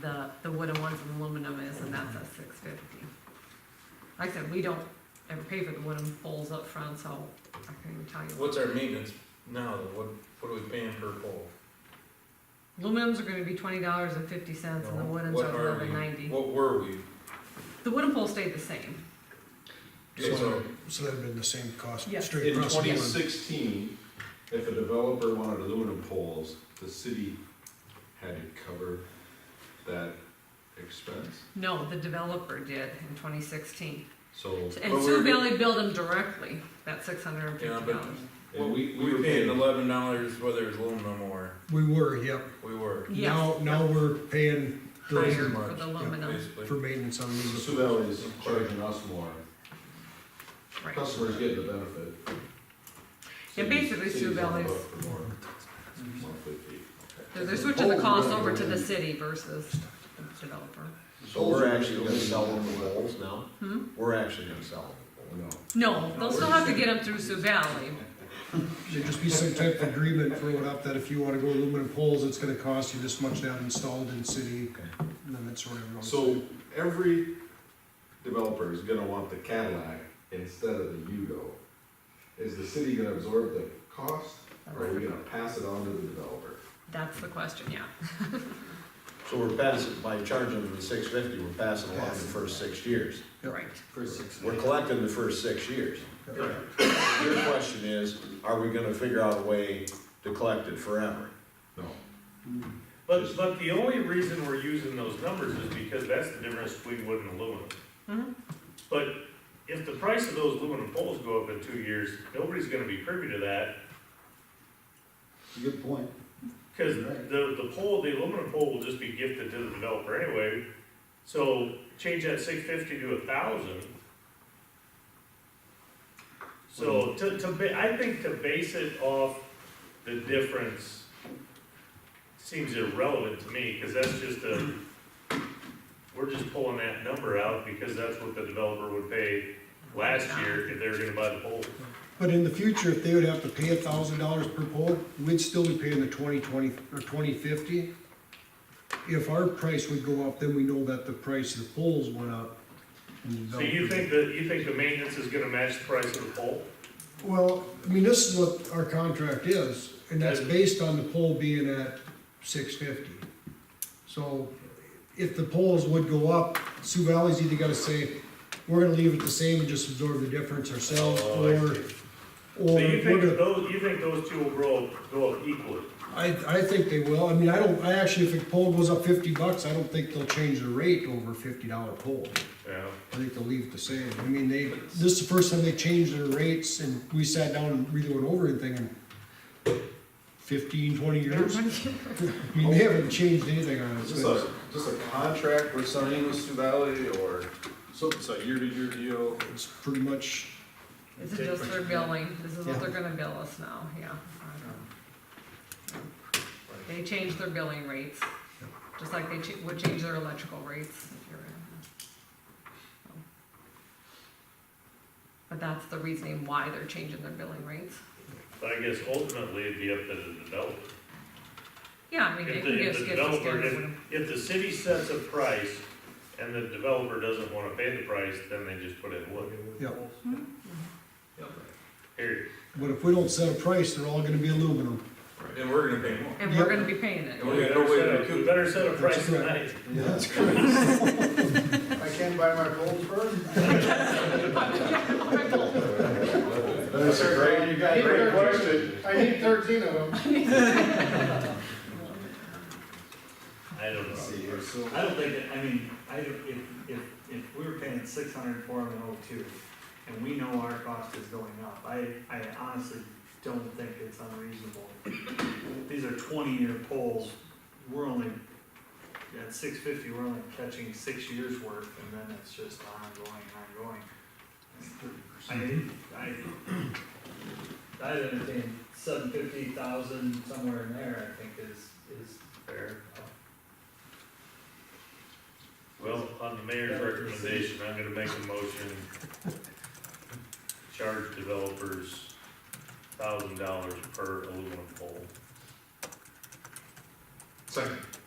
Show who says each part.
Speaker 1: the, the wooden ones and aluminum is, and that's a six fifty. Like I said, we don't ever pay for the wooden poles up front, so I couldn't even tell you.
Speaker 2: What's our maintenance now, though? what, what are we paying per pole?
Speaker 1: Aluminums are gonna be twenty dollars and fifty cents, and the woodens
Speaker 2: What
Speaker 1: are
Speaker 2: we-
Speaker 1: eleven ninety.
Speaker 2: What were we?
Speaker 1: The wooden poles stayed the same.
Speaker 2: Okay, so-
Speaker 3: So that'd been the same cost
Speaker 1: Yeah.
Speaker 3: straight
Speaker 4: In
Speaker 3: across the
Speaker 4: twenty
Speaker 3: board.
Speaker 4: sixteen, if a developer wanted aluminum poles, the city had to cover that expense.
Speaker 1: No, the developer did in twenty sixteen.
Speaker 4: So,
Speaker 1: And
Speaker 2: But
Speaker 1: Sioux
Speaker 2: we're-
Speaker 1: Valley billed them directly, that six hundred and
Speaker 2: Yeah,
Speaker 1: fifty
Speaker 2: but-
Speaker 1: dollars.
Speaker 4: and we,
Speaker 2: We were paying eleven dollars whether it was aluminum or,
Speaker 3: We were, yep.
Speaker 2: we were,
Speaker 1: Yes.
Speaker 3: Now, now we're paying
Speaker 2: Those
Speaker 1: Higher
Speaker 2: are
Speaker 3: the,
Speaker 1: for
Speaker 2: much,
Speaker 1: the
Speaker 2: yeah,
Speaker 1: aluminum,
Speaker 2: basically.
Speaker 3: for maintenance on
Speaker 4: So
Speaker 3: these.
Speaker 4: Sioux Valley is charging us more,
Speaker 1: right.
Speaker 4: customers get the benefit.
Speaker 1: Yeah, basically
Speaker 4: City's on
Speaker 1: Sioux
Speaker 4: the
Speaker 1: Valley's-
Speaker 4: hook For more, monthly fee.
Speaker 1: They're they're switching the cost over to the city versus the developer.
Speaker 5: So we're actually gonna sell them the poles now?
Speaker 1: Hmm?
Speaker 5: We're actually gonna sell them.
Speaker 4: No.
Speaker 1: No, they'll still have to get them through Sioux Valley.
Speaker 3: There'd just be some type of agreement thrown up that if you wanna go aluminum poles, it's gonna cost you this much to have installed in city. And then it's sort of. everyone's-
Speaker 4: So every developer is gonna want the Cadillac instead of the Yugo. Is the city gonna absorb the cost, or are we gonna pass it on to the developer?
Speaker 1: That's the question, yeah.
Speaker 5: So we're passing, by charging them the six fifty, we're passing along the first six years.
Speaker 3: Yep.
Speaker 1: Right.
Speaker 5: We're collecting the first six years. Your question is, are we gonna figure out a way to collect it forever?
Speaker 4: No.
Speaker 6: But, but the only reason we're using those numbers is because that's the difference between wood and aluminum.
Speaker 1: Mhm.
Speaker 6: But if the price of those aluminum poles go up in two years, nobody's gonna be privy to that,
Speaker 7: Good point.
Speaker 6: cause the, the pole, the aluminum pole will just be gifted to the developer anyway. So change that six fifty to a thousand. So to, to, ba- I think to base it off the difference seems irrelevant to me, cause that's just a, we're just pulling that number out because that's what the developer would pay last year if they were gonna buy the pole.
Speaker 3: But in the future, if they would have to pay a thousand dollars per pole, we'd still be paying the twenty twenty, or twenty fifty. If our price would go up, then we know that the price of the poles went up. and the
Speaker 6: So you
Speaker 3: developer-
Speaker 6: think that, you think the maintenance is gonna match the price of the pole?
Speaker 3: Well, I mean, this is what our contract is, and that's based on the pole being at six fifty. So if the poles would go up, Sioux Valley's either gotta say, we're gonna leave it the same and just absorb the difference ourselves,
Speaker 6: Oh, I
Speaker 3: or,
Speaker 6: see.
Speaker 3: or
Speaker 6: So you think
Speaker 3: we're gonna,
Speaker 6: those, you think those two will grow, go up equally?
Speaker 3: I, I think they will, I mean, I don't, I actually, if a pole goes up fifty bucks, I don't think they'll change the rate over a fifty dollar pole.
Speaker 6: Yeah.
Speaker 3: I think they'll leave it the same. I mean, they, this is the first time they changed their rates and we sat down and really went over everything in fifteen, twenty years. I mean, they haven't changed anything on
Speaker 4: Is this
Speaker 3: us.
Speaker 4: a, just a contract we're signing with Sioux Valley, or so it's a year-to-year deal?
Speaker 3: It's pretty much,
Speaker 1: This is just their billing, this is what
Speaker 3: Yeah.
Speaker 1: they're gonna bill us now, yeah. They change their billing rates, just like they cha- would change their electrical rates if you're in. But that's the reasoning why they're changing their billing rates.
Speaker 6: But I guess ultimately it'd be up to the developer.
Speaker 1: Yeah, I mean, they
Speaker 6: If
Speaker 1: can
Speaker 6: the,
Speaker 1: give
Speaker 6: if
Speaker 1: us
Speaker 6: the
Speaker 1: gifts, gifts,
Speaker 6: developer,
Speaker 1: gifts.
Speaker 6: if, if the city sets a price and the developer doesn't wanna pay the price, then they just put in wood,
Speaker 3: yeah.
Speaker 6: period.
Speaker 3: But if we don't set a price, they're all gonna be aluminum.
Speaker 2: and we're gonna pay more.
Speaker 1: And we're gonna be paying it.
Speaker 2: And we got no way to recoup.
Speaker 6: We better set a price tonight.
Speaker 3: That's correct.
Speaker 7: I can't buy my gold firm.
Speaker 4: That's a great, great question.
Speaker 7: I need thirteen of them.
Speaker 6: I don't know.
Speaker 4: See, we're still-
Speaker 8: I don't think, that- I mean, I don't, if, if, if we were paying six hundred for them in oh two, and we know our cost is going up, I, I honestly don't think it's unreasonable. These are twenty-year poles, we're only, at six fifty, we're only catching six years worth, and then it's just ongoing, ongoing. I, I, I entertain seven fifty thousand, somewhere in there, I think is, is fair.
Speaker 6: Well, on the mayor's recommendation, I'm gonna make a motion, charge developers thousand dollars per aluminum pole.
Speaker 4: Second.